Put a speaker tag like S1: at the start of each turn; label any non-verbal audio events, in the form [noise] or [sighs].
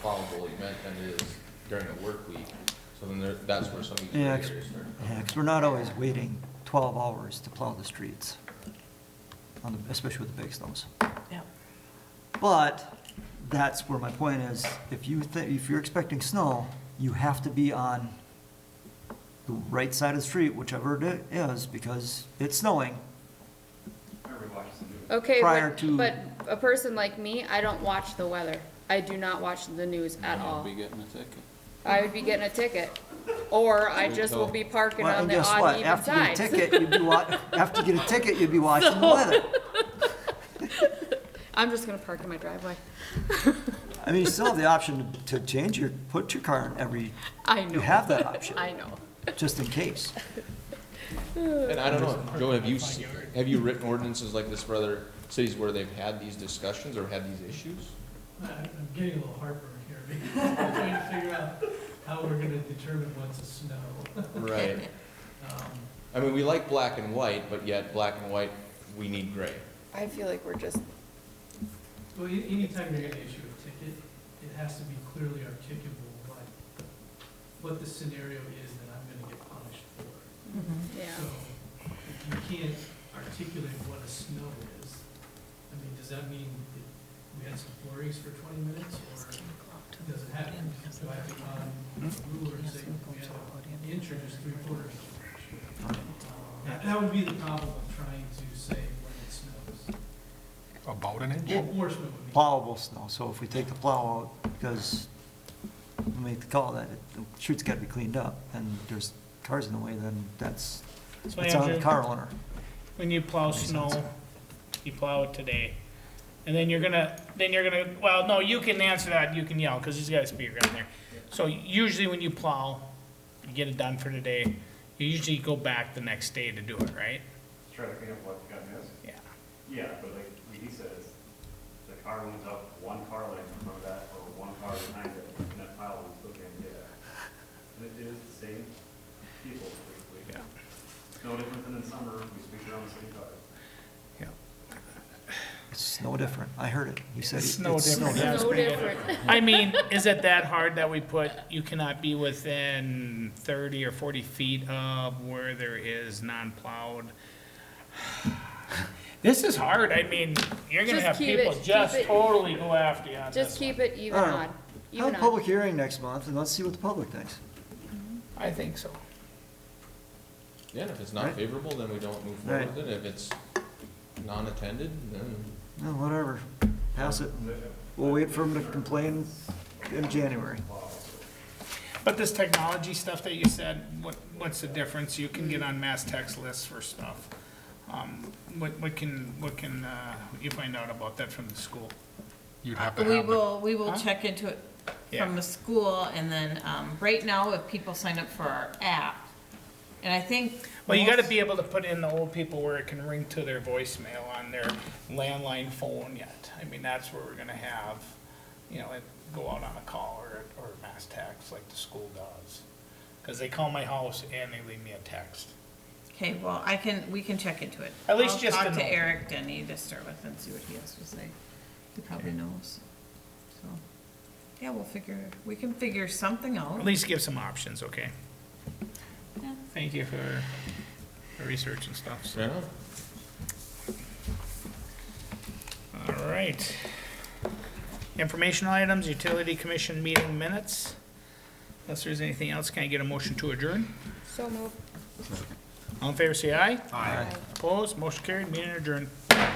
S1: probably meant than it is during the work week. So then there, that's where some of these gray
S2: Yeah, 'cause-
S1: areas start.
S2: Yeah, because we're not always waiting 12 hours to plow the streets, on the- especially with the big snows.
S3: Yeah.
S2: But that's where my point is, if you, thi- if you're expecting snow, you have to be on the right side of the street, whichever it is, because it's snowing.
S4: Okay,
S2: Prior
S4: but,
S2: to-
S4: but a person like me, I don't watch the weather. I do not watch the news at all.
S5: Be getting a ticket.
S4: I would be getting a ticket, or I just will be parking
S2: Well,
S4: on
S2: and
S4: the
S2: guess
S4: odd
S2: what?
S4: even
S2: After you get a
S4: sides.
S2: ticket, you'd be wa, after you get a ticket, you'd be watching the weather.
S4: [laughs] I'm just gonna park in my driveway.
S2: I mean, you still have the option to change your, put your car in every,
S4: I know.
S2: you have
S4: [laughs]
S2: that option,
S4: I know.
S2: just in case.
S1: And I don't know, Joe, have you, s- have you written ordinances like this for other cities where they've had these discussions or had these issues?
S6: I- I'm getting a little heartburn here [laughs] because I'm trying to figure out how we're gonna determine what's a snow.
S1: Right.
S6: Um,
S1: I mean, we like black and white, but yet black and white, we need gray.
S3: I feel like we're just,
S6: Well, a- anytime you're gonna issue a ticket, it has to be clearly articulable, what, what the scenario is that I'm gonna get punished for.
S4: Yeah.
S6: So if you can't articulate what a snow is, I mean, does that mean that we had some flurries for twenty minutes or does it happen? Do I have to go on rulers and say we have to introduce three quarters? That, that would be the problem of trying to say when it snows.
S7: About an inch?
S6: Enforcement would be.
S2: plowable snow, so if we take the plow out, because we make the call that it- the street's gotta be cleaned up, and there's cars in the way, then that's,
S8: So
S2: it's on the
S8: Andrew,
S2: car owner.
S8: When you plow snow, you plow it today, and then you're gonna, then you're gonna, well, no, you can answer that, you can yell, cause he's got a speaker on there. So usually when you plow, you get it done for today, you usually go back the next day to do it, right?
S9: try to clean up what got missed?
S8: Yeah.
S9: Yeah, but like Dee says, the car went up one car length in front of that, or one car behind it, and that pile was looking at it. And it is the same people, basically.
S8: Yeah.
S9: No different than in summer, we speak around the city car.
S2: It's no different, I heard it, he said.
S8: It's
S2: it-
S8: no different. Yeah, it's
S4: So
S8: pretty good.
S4: different.
S8: I mean, is it that hard that we put, you cannot be within thirty or forty feet of where there is non-plowed? [sighs] This is hard, I mean, you're gonna have
S4: Just keep it-
S8: people
S4: keep
S8: just
S4: it-
S8: totally go after you on
S4: Just
S8: this one.
S4: keep it even
S2: Alright.
S4: odd,
S2: Have
S4: even
S2: a
S4: odd.
S2: public hearing next month, and let's see what the public thinks.
S8: I think so.
S1: Yeah, and if it's
S2: Right.
S1: not favorable, then we don't move
S2: Right.
S1: forward with it. If it's non-attended, then
S2: No, whatever, pass it, we'll wait for him to complain in January.
S8: But this technology stuff that you said, what, what's the difference? You can get
S4: Mm-hmm.
S8: on mass text lists for stuff. Um, what, what can, what can, uh, you find out about that from the school?
S7: You'd have to
S3: we
S7: have, the-
S3: will, we will check into it
S8: Yeah.
S3: from the school, and then, um, right now, if people sign up for our app, and I think.
S8: Well, you
S3: most-
S8: gotta be able to put in the old people where it can ring to their voicemail on their landline phone yet. I mean, that's where we're gonna have, you know, it go out on a call or, or mass text like the school does. Cause they call my house and they leave me a text.
S3: Okay, well, I can, we can check into it.
S8: At least just
S3: I'll
S8: to
S3: talk to
S8: know.
S3: Eric Denny to start with and see what he has to say. He probably knows, so, yeah, we'll figure, we can figure something out.
S8: At least give some options, okay?
S3: Yeah.
S8: Thank you for the research and stuff, so.
S1: yeah.
S8: All right. Informational items, utility commission meeting minutes. Unless there's anything else, can I get a motion to adjourn?
S4: So moved.
S8: All in favor, say aye. Aye. Opposed, motion carried, meeting adjourned.